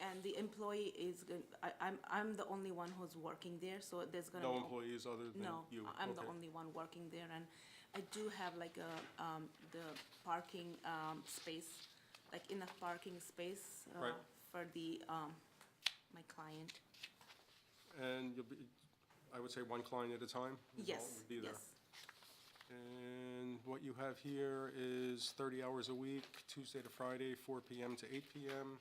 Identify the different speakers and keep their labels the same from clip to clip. Speaker 1: and the employee is, gon- I, I'm, I'm the only one who's working there, so there's gonna be.
Speaker 2: No employees other than
Speaker 1: No,
Speaker 2: you?
Speaker 1: I- I'm the
Speaker 2: Okay.
Speaker 1: only one working there, and I do have like a, um, the parking, um, space, like enough parking space, uh,
Speaker 2: Right.
Speaker 1: for the, um, my client.
Speaker 2: And you'll be, I would say one client at a time? is all that
Speaker 1: Yes,
Speaker 2: would be there.
Speaker 1: yes,
Speaker 2: And what you have here is 30 hours a week, Tuesday to Friday, 4 PM to 8 PM,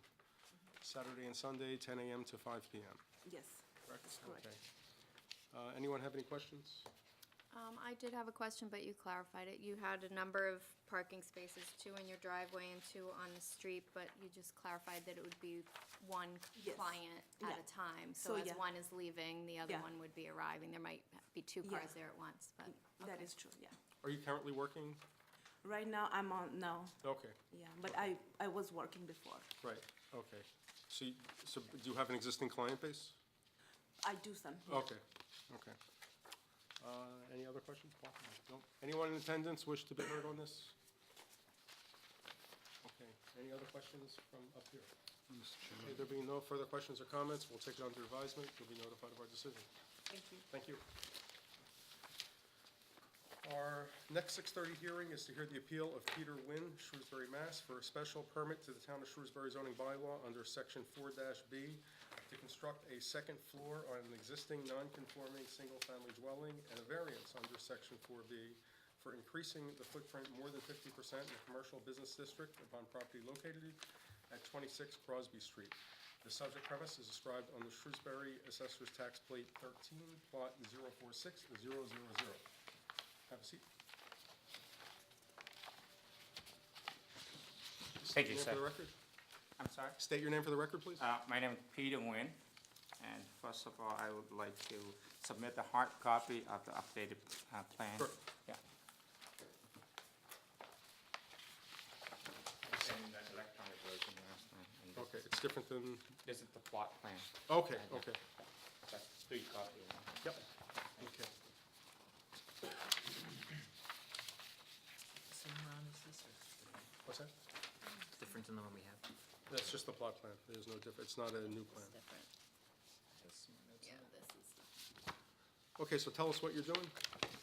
Speaker 2: Saturday and Sunday, 10 AM to 5 PM.
Speaker 1: yes. That's correct.
Speaker 2: Okay. Uh, Anyone have any questions?
Speaker 3: Um, I did have a question, but you clarified it. You had a number of parking spaces, two in your driveway and two on the street, but you just clarified that it would be one
Speaker 1: Yes.
Speaker 3: client at
Speaker 1: Yeah.
Speaker 3: a time.
Speaker 1: So,
Speaker 3: So as
Speaker 1: yeah.
Speaker 3: one is leaving, the other
Speaker 1: Yeah.
Speaker 3: one would be arriving. There might be two
Speaker 1: Yeah.
Speaker 3: cars there at once, but.
Speaker 1: That
Speaker 3: okay.
Speaker 1: is true, yeah.
Speaker 2: Are you currently working?
Speaker 1: Right now, I'm on, no,
Speaker 2: Okay,
Speaker 1: yeah, but I, I was working before.
Speaker 2: right, okay. So, you- so do you have an existing client base?
Speaker 1: I do some, yeah.
Speaker 2: Okay, okay. Uh, Any other questions, Paul? No. Anyone in attendance wish to be heard on this? Okay, any other questions from up here? Okay, there being no further questions or comments, we'll take it under advisement, you'll be notified of our decision.
Speaker 3: Thank you.
Speaker 2: Thank you. Our next six-thirty hearing is to hear the appeal of Peter Nguyen, Shrewsbury, Mass., for a special permit to the Town of Shrewsbury zoning bylaw under section four B to construct a second floor on an existing non-conforming single-family dwelling and a variance under section four B for increasing the footprint more than fifty percent in the commercial business district upon property located at twenty-six Crosby Street. The subject premise is described on the Shrewsbury Assessor's Tax Plate thirteen, plot 046-000. Have a seat.
Speaker 4: Thank you,
Speaker 2: Name for the
Speaker 4: sir.
Speaker 2: record?
Speaker 4: I'm sorry?
Speaker 2: State your name for the record, please.
Speaker 4: Uh, my name is Peter Nguyen, and first of all, I would like to submit the hard copy of the updated, uh, plan.
Speaker 2: Sure.
Speaker 4: Yeah. Send that electronic version last time, and
Speaker 2: Okay, it's different than,
Speaker 4: This is the plot plan,
Speaker 2: okay, okay.
Speaker 4: that's three copies.
Speaker 2: Yep. Okay.
Speaker 5: Same one as this, or
Speaker 2: What's that?
Speaker 5: different than the one we have?
Speaker 2: That's just the plot plan. There's no diff, it's not a new plan.
Speaker 3: Different.
Speaker 5: This one, that's-
Speaker 3: Yeah, this is,
Speaker 2: Okay, so tell us what you're doing.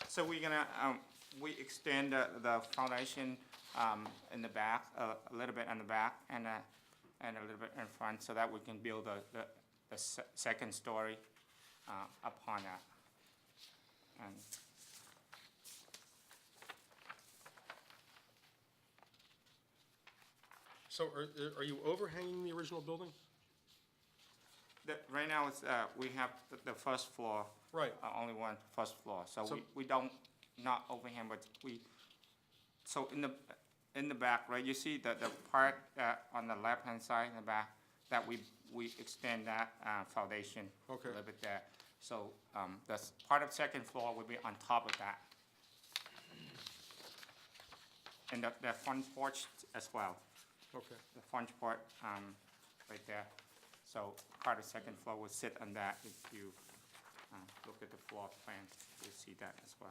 Speaker 4: So we're gonna, um, we extend the, the foundation, um, in the back, a, a little bit on the back and, uh, and a little bit in front, so that we can build the, the, the se- second story, uh, upon that. And,
Speaker 2: So are, are you overhanging the original building?
Speaker 4: The, right now, it's, uh, we have the, the first floor.
Speaker 2: Right.
Speaker 4: uh, Only one first floor, so
Speaker 2: So-
Speaker 4: we, we don't, not overhang, but we, so in the, in the back, right, you see the, the part, uh, on the left-hand side in the back, that we, we extend that, uh, foundation.
Speaker 2: Okay.
Speaker 4: A little bit there, so, um, that's, part of second floor will be on top of that. And the, the front porch as well
Speaker 2: Okay,
Speaker 4: the front part, um, right there. So part of second floor will sit on that. If you, uh, look at the floor plan, you'll see that as well.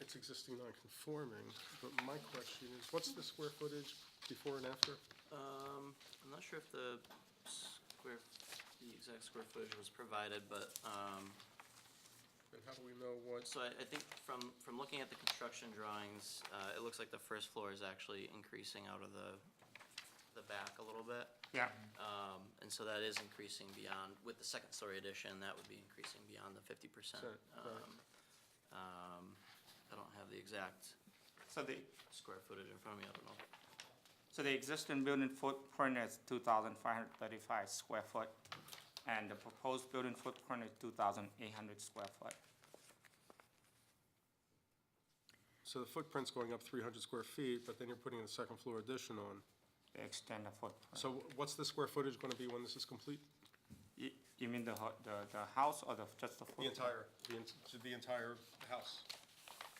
Speaker 2: it's existing non-conforming, but my question is, what's the square footage before and after?
Speaker 5: Um, I'm not sure if the square, the exact square footage was provided, but, um,
Speaker 2: And how do we know what?
Speaker 5: so I, I think from, from looking at the construction drawings, uh, it looks like the first floor is actually increasing out of the, the back a little bit.
Speaker 4: Yeah,
Speaker 5: Um, and so that is increasing beyond, with the second story addition, that would be increasing beyond the fifty percent.
Speaker 2: Sure, right.
Speaker 5: Um, I don't have the exact
Speaker 4: so the,
Speaker 5: square footage in front of me, I don't know.
Speaker 4: so the existing building footprint is two thousand five hundred thirty-five square foot, and the proposed building footprint is two thousand eight hundred square foot.
Speaker 2: So the footprint's going up three hundred square feet, but then you're putting a second floor addition on.
Speaker 4: They extend the footprint.
Speaker 2: So what's the square footage gonna be when this is complete?
Speaker 4: You, you mean the, ho- the, the house or the, just the
Speaker 2: The
Speaker 4: footprint?
Speaker 2: entire, the, en- to the entire house.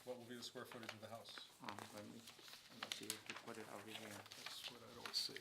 Speaker 2: What will be the square footage of the house?
Speaker 4: Um, let me, let me see if we put it over here.
Speaker 2: That's what I don't see.